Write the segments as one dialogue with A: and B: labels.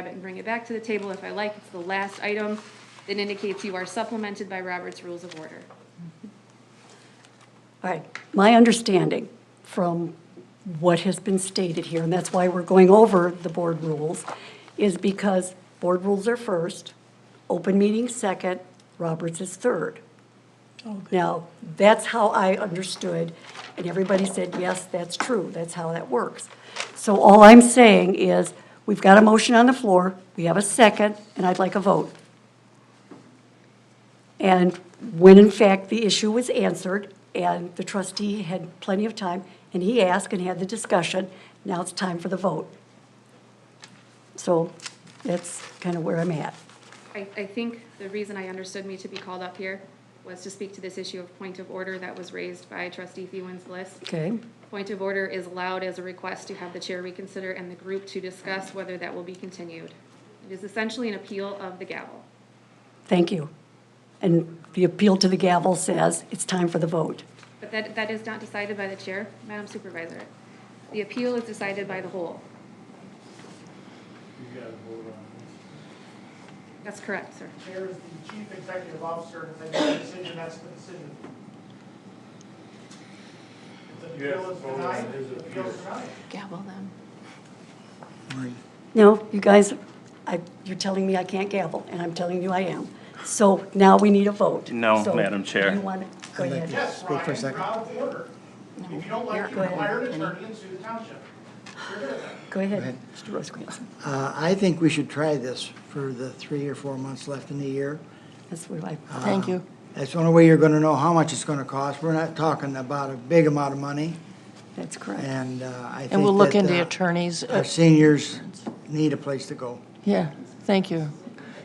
A: grab it and bring it back to the table if I like. It's the last item that indicates you are supplemented by Robert's Rules of Order.
B: All right, my understanding from what has been stated here, and that's why we're going over the board rules, is because board rules are first, open meeting second, Roberts is third. Now, that's how I understood, and everybody said, yes, that's true, that's how that works. So all I'm saying is, we've got a motion on the floor, we have a second, and I'd like a vote. And when in fact the issue was answered, and the trustee had plenty of time, and he asked and had the discussion, now it's time for the vote. So that's kind of where I'm at.
A: I, I think the reason I understood me to be called up here was to speak to this issue of point of order that was raised by trustee Thewins List.
B: Okay,
A: Point of order is allowed as a request to have the chair reconsider and the group to discuss whether that will be continued. It is essentially an appeal of the gavel.
B: thank you. And the appeal to the gavel says it's time for the vote.
A: But that, that is not decided by the chair, Madam Supervisor. The appeal is decided by the whole.
C: You gotta vote on
A: That's correct, sir.
D: Mayor is the chief executive officer, and makes the decision, that's the decision. If the
C: You have
D: appeal is
C: to vote on
D: denied,
C: his
D: the appeal is
C: appeal.
D: denied.
A: Gavel them.
B: No, you guys, I, you're telling me I can't gavel, and I'm telling you I am. So now we need a vote.
E: No,
B: So
E: Madam Chair.
B: You want to, go
F: I'd like
B: ahead.
F: to-
D: Yes,
F: Speak for a
D: Ryan,
F: second.
D: Brown order. If you don't like, you
B: Go ahead,
D: hire an
B: Kenny.
D: attorney and sue the township. You're good at that.
B: Go ahead,
F: ahead.
B: Mr. Rosecrans.
F: Uh, I think we should try this for the three or four months left in the year.
B: That's what I.
G: Um,
F: Thank you. That's the only way you're gonna know how much it's gonna cost. We're not talking about a big amount of money,
B: That's correct.
F: and uh, I think
G: And we'll look
F: that,
G: into
F: uh,
G: attorneys. uh,
F: Our seniors need a place to go.
G: Yeah, thank you.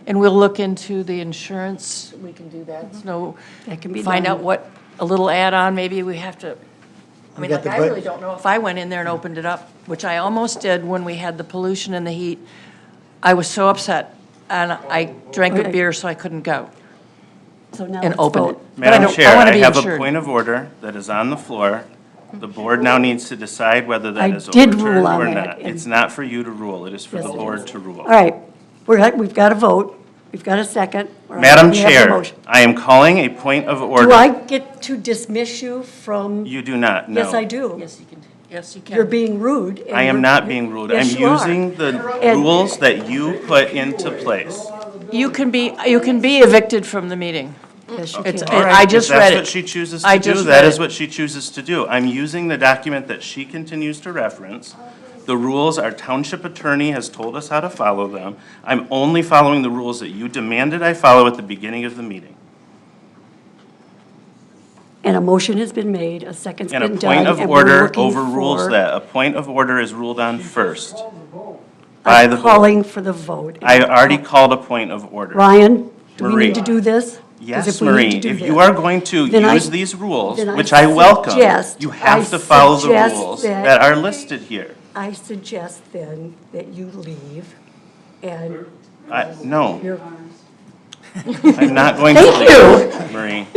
G: And we'll look into the insurance. We can do that. So
B: That can be
G: find out
B: done.
G: what, a little add-on, maybe we have to, I
F: We
G: mean,
F: got
G: like,
F: the
G: I
F: bud-
G: really don't know if I went in there and opened it up, which I almost did when we had the pollution and the heat. I was so upset, and I drank a
B: Okay.
G: beer, so I couldn't go
B: So now
G: and
B: let's
G: open it.
B: vote.
G: But I
E: Madam
G: don't-
E: Chair,
G: wanna
E: I
G: be
E: have a
G: insured.
E: point of order that is on the floor. The board now needs to decide whether
B: I
E: that is
B: did rule
E: overturned
B: on
E: or
B: that,
E: not.
B: and-
E: It's not for you to rule, it is for
B: Yes,
E: the
B: it
E: board to rule.
B: All right, we're, at- we've got a vote, we've got a second. All right,
E: Madam
B: we have a
E: Chair,
B: motion.
E: I am calling a point of
B: Do I
E: order.
B: get to dismiss you from?
E: You do not, no.
B: Yes, I do.
G: Yes, you can, yes, you can.
B: You're being rude. and
E: I am
B: you're-
E: not being ruled. I'm
B: Yes, you are.
E: using the
B: And-
E: rules that you put into place.
G: You can be, you can be evicted from the meeting.
B: Yes, you
G: It's,
B: can.
E: All right,
G: I just read
E: If
G: it.
E: that's what she chooses
G: I
E: to do,
G: just
E: that
G: read
E: is
G: it.
E: what she chooses to do. I'm using the document that she continues to reference. The rules, our township attorney has told us how to follow them. I'm only following the rules that you demanded I follow at the beginning of the meeting.
B: And a motion has been made, a second's
E: And a
B: been done.
E: point of
B: and we're
E: order
B: looking
E: overrules
B: for-
E: that. A point of order is ruled on first by the
B: I'm
E: board.
B: calling for the vote.
E: I already called a point of order.
B: Ryan, do we
E: Marie.
B: need to do this? 'Cause
E: Yes,
B: if we need to
E: Marie,
B: do
E: if
B: this-
E: you are going to
B: then I-
E: use these rules,
B: then I
E: which I welcome,
B: suggest-
E: you
B: I
E: have to follow the
B: suggest
E: rules
B: that-
E: that are listed here.
B: I suggest then that you leave and
E: I, no,
B: you're,
E: I'm not going to
B: Thank
E: leave, Marie.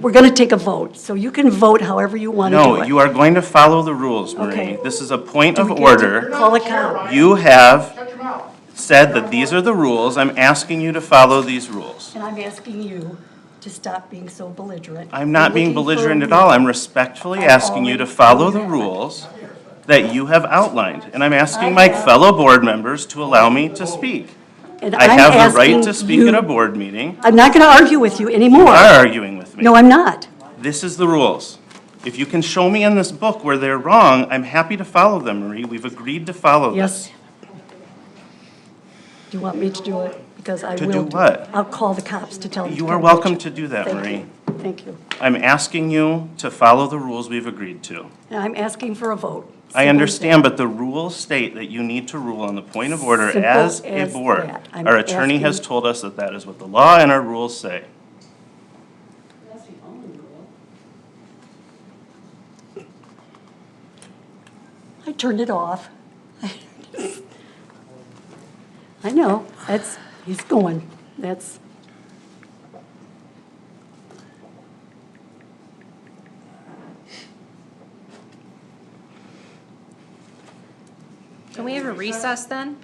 B: we're going to take a vote. So you can vote however you want to do it.
E: No, you are going to follow the rules,
B: Okay.
E: Marie. This is a point of
B: we get to-
E: order.
B: Call a
D: You're not the chair,
B: count.
D: Ryan.
E: You have
D: Shut your mouth.
E: said that these are the rules. I'm asking you to follow these rules.
B: And I'm asking you to stop being so belligerent.
E: I'm not being
B: Looking for a
E: belligerent at
B: reason.
E: all. I'm respectfully
B: I've
E: asking you to
B: already
E: follow
B: done
E: the
B: that.
E: rules that you have outlined. And I'm asking
B: I
E: my
B: have-
E: fellow board members to allow me to speak.
B: And
E: I
B: I'm
E: have the right
B: asking
E: to speak
B: you-
E: at a board meeting.
B: I'm not going to argue with you
E: You
B: anymore.
E: are arguing with me.
B: No, I'm not.
E: This is the rules. If you can show me in this book where they're wrong, I'm happy to follow them, Marie. We've agreed to follow them.
B: Yes. Do you want me to do it? Because I will.
E: To do what?
B: I'll call the cops to tell them. to
E: You
B: come
E: are
B: get
E: welcome
B: you.
E: to do that,
B: Thank
E: Marie.
B: you. Thank you.
E: I'm asking you to follow the rules we've agreed to.
B: And I'm asking for a vote.
E: I understand, but the rules state that you need to rule on the point of order
B: Simple
E: as a
B: as
E: board.
B: that. I'm
E: Our attorney has
B: asking-
E: told us that that is what the law and our rules say.
B: I turned it off. I know, that's, he's going, that's.
H: Can we have a recess then?